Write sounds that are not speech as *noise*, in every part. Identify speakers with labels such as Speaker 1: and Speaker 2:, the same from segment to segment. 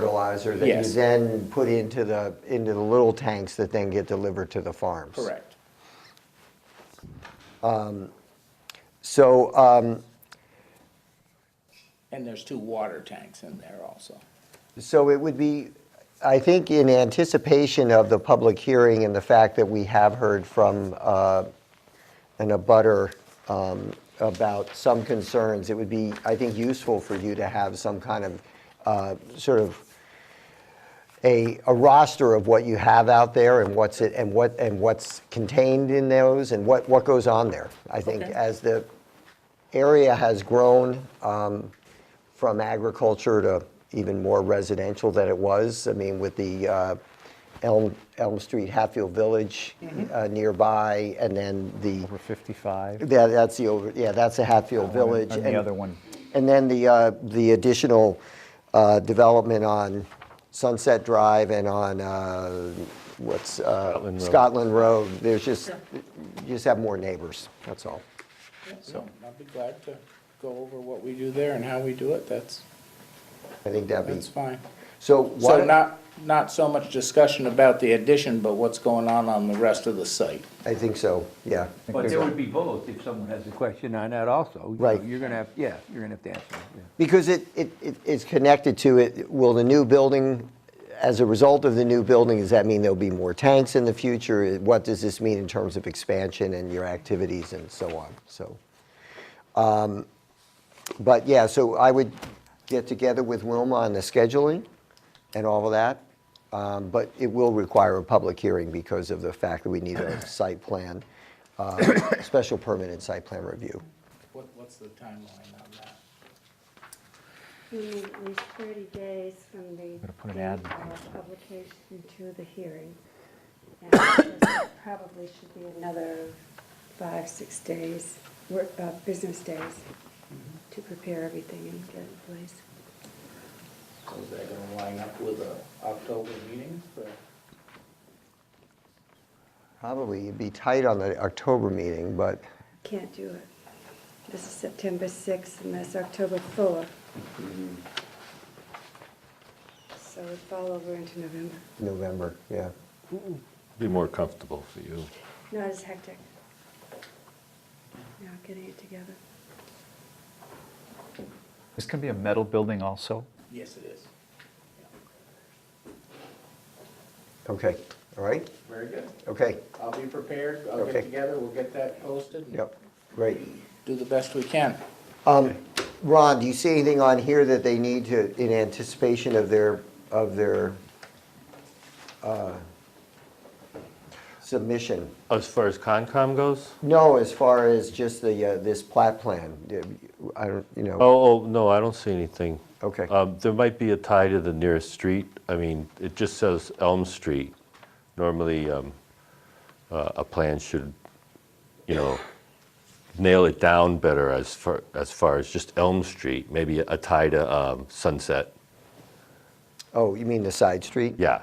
Speaker 1: fertilizer that you
Speaker 2: Yes.
Speaker 1: then put into the, into the little tanks that then get delivered to the farms.
Speaker 2: Correct.
Speaker 1: So, um,
Speaker 2: And there's two water tanks in there also.
Speaker 1: so it would be, I think in anticipation of the public hearing and the fact that we have heard from uh, an abutter um, about some concerns, it would be, I think, useful for you to have some kind of, uh, sort of, a, a roster of what you have out there and what's it, and what, and what's contained in those and what, what goes on there. I think
Speaker 2: Okay.
Speaker 1: as the area has grown um, from agriculture to even more residential than it was, I mean, with the uh, Elm, Elm Street Hatfield Village
Speaker 3: Mm-hmm.
Speaker 1: uh, nearby and then the,
Speaker 3: Over 55.
Speaker 1: yeah, that's the, over. yeah, that's the Hatfield Village.
Speaker 3: And the other one.
Speaker 1: And then the, uh, the additional uh, development on Sunset Drive and on, uh, what's, uh,
Speaker 3: Scotland Road.
Speaker 1: Scotland Road. There's just, you just have more neighbors, that's all.
Speaker 2: So I'd be glad to go over what we do there and how we do it. That's,
Speaker 1: I think that'd be,
Speaker 2: that's fine.
Speaker 1: so
Speaker 2: So
Speaker 1: what,
Speaker 2: not, not so much discussion about the addition, but what's going on on the rest of the site.
Speaker 1: I think so, yeah.
Speaker 4: But there would be both if someone has a question on that also.
Speaker 1: Right.
Speaker 4: You're gonna have, yeah, you're gonna have to answer, it, yeah.
Speaker 1: Because it, it, it- it's connected to it, will the new building, as a result of the new building, does that mean there'll be more tanks in the future? What does this mean in terms of expansion and your activities and so on, so. um, But yeah, so I would get together with Wilma on the scheduling and all of that. um, But it will require a public hearing because of the fact that we need a site plan, uh, *coughs* special permit and site plan review.
Speaker 2: What, what's the timeline on that?
Speaker 5: We need at least 30 days from the
Speaker 3: put an
Speaker 5: date
Speaker 3: ad
Speaker 5: of
Speaker 3: in the
Speaker 5: publication to the hearing. And there Probably should be another five, six days, work- uh, business days, to prepare everything and get it in place.
Speaker 2: So is that gonna line up with the October meeting?
Speaker 1: Probably, you'd be tight on the October meeting, but
Speaker 5: Can't do it. This is September 6th and that's October 4th. So we fall over into November.
Speaker 1: November, yeah.
Speaker 6: Be more comfortable for you.
Speaker 5: Not as hectic. Now getting it together.
Speaker 3: This can be a metal building also.
Speaker 2: Yes, it is.
Speaker 1: Okay, all right,
Speaker 2: Very good.
Speaker 1: okay,
Speaker 2: I'll be prepared. I'll get
Speaker 1: Okay.
Speaker 2: together. We'll get that posted. and
Speaker 1: yep, great.
Speaker 2: Do the best we can.
Speaker 1: Um, Ron, do you see anything on here that they need to, in anticipation of their, of their uh, submission?
Speaker 6: As far as Concom goes?
Speaker 1: No, as far as just the, uh, this plat plan, I don't, you know,
Speaker 6: Oh, oh, no, I don't see anything.
Speaker 1: okay,
Speaker 6: Um, There might be a tie to the nearest street. I mean, it just says Elm Street. Normally, um, uh, a plan should, you know, nail it down better as far, as far as just Elm Street, maybe a tie to um, Sunset.
Speaker 1: oh, you mean the side street?
Speaker 6: Yeah.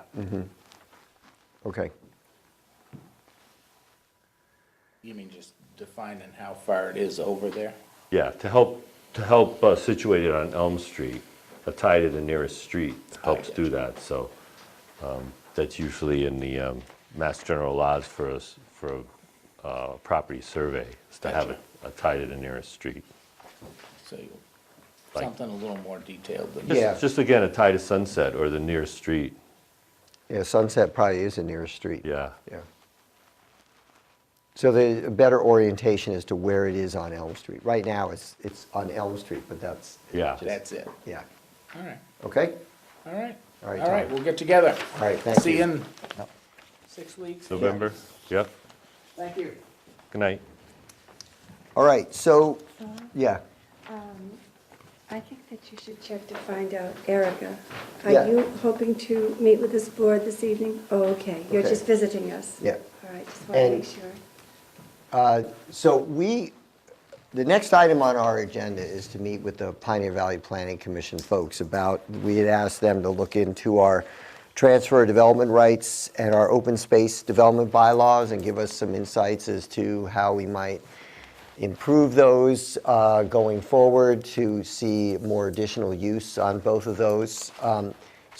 Speaker 1: Okay,
Speaker 2: You mean just defining how far it is over there?
Speaker 6: Yeah, to help, to help uh, situate it on Elm Street, a tie to the nearest street helps
Speaker 2: get
Speaker 6: do that, so um, that's usually in the um, Mass General laws for us, for a uh, property survey, is to have
Speaker 2: Gotcha.
Speaker 6: a- a tie to the nearest street.
Speaker 2: So you-
Speaker 6: Like-
Speaker 2: something a little more detailed than.
Speaker 6: Just-
Speaker 1: Yeah.
Speaker 6: Just again, a tie to Sunset or the nearest street,
Speaker 1: yeah, Sunset probably is the nearest street.
Speaker 6: yeah.
Speaker 1: Yeah. So the better orientation as to where it is on Elm Street. Right now, it's, it's on Elm Street, but that's.
Speaker 6: Yeah.
Speaker 1: just-
Speaker 2: That's it.
Speaker 1: Yeah,
Speaker 2: All right,
Speaker 1: okay?
Speaker 2: all right.
Speaker 1: All right,
Speaker 2: All right,
Speaker 1: Tom.
Speaker 2: we'll get together.
Speaker 1: All right, thank
Speaker 2: See
Speaker 1: you.
Speaker 2: you in six weeks.
Speaker 6: November, yep,
Speaker 2: Thank you.
Speaker 6: good night.
Speaker 1: All right, so, yeah,
Speaker 5: I think that you should check to find out, Erica,
Speaker 1: Yeah.
Speaker 5: are you hoping to meet with this board this evening? Oh, okay, you're
Speaker 1: Okay.
Speaker 5: just visiting us?
Speaker 1: Yeah.
Speaker 5: All right, just want to
Speaker 1: And-
Speaker 5: make sure.
Speaker 1: Uh, so we, the next item on our agenda is to meet with the Pioneer Valley Planning Commission folks about, we had asked them to look into our transfer of development rights and our open space development bylaws and give us some insights as to how we might improve those uh, going forward to see more additional use on both of those. Um,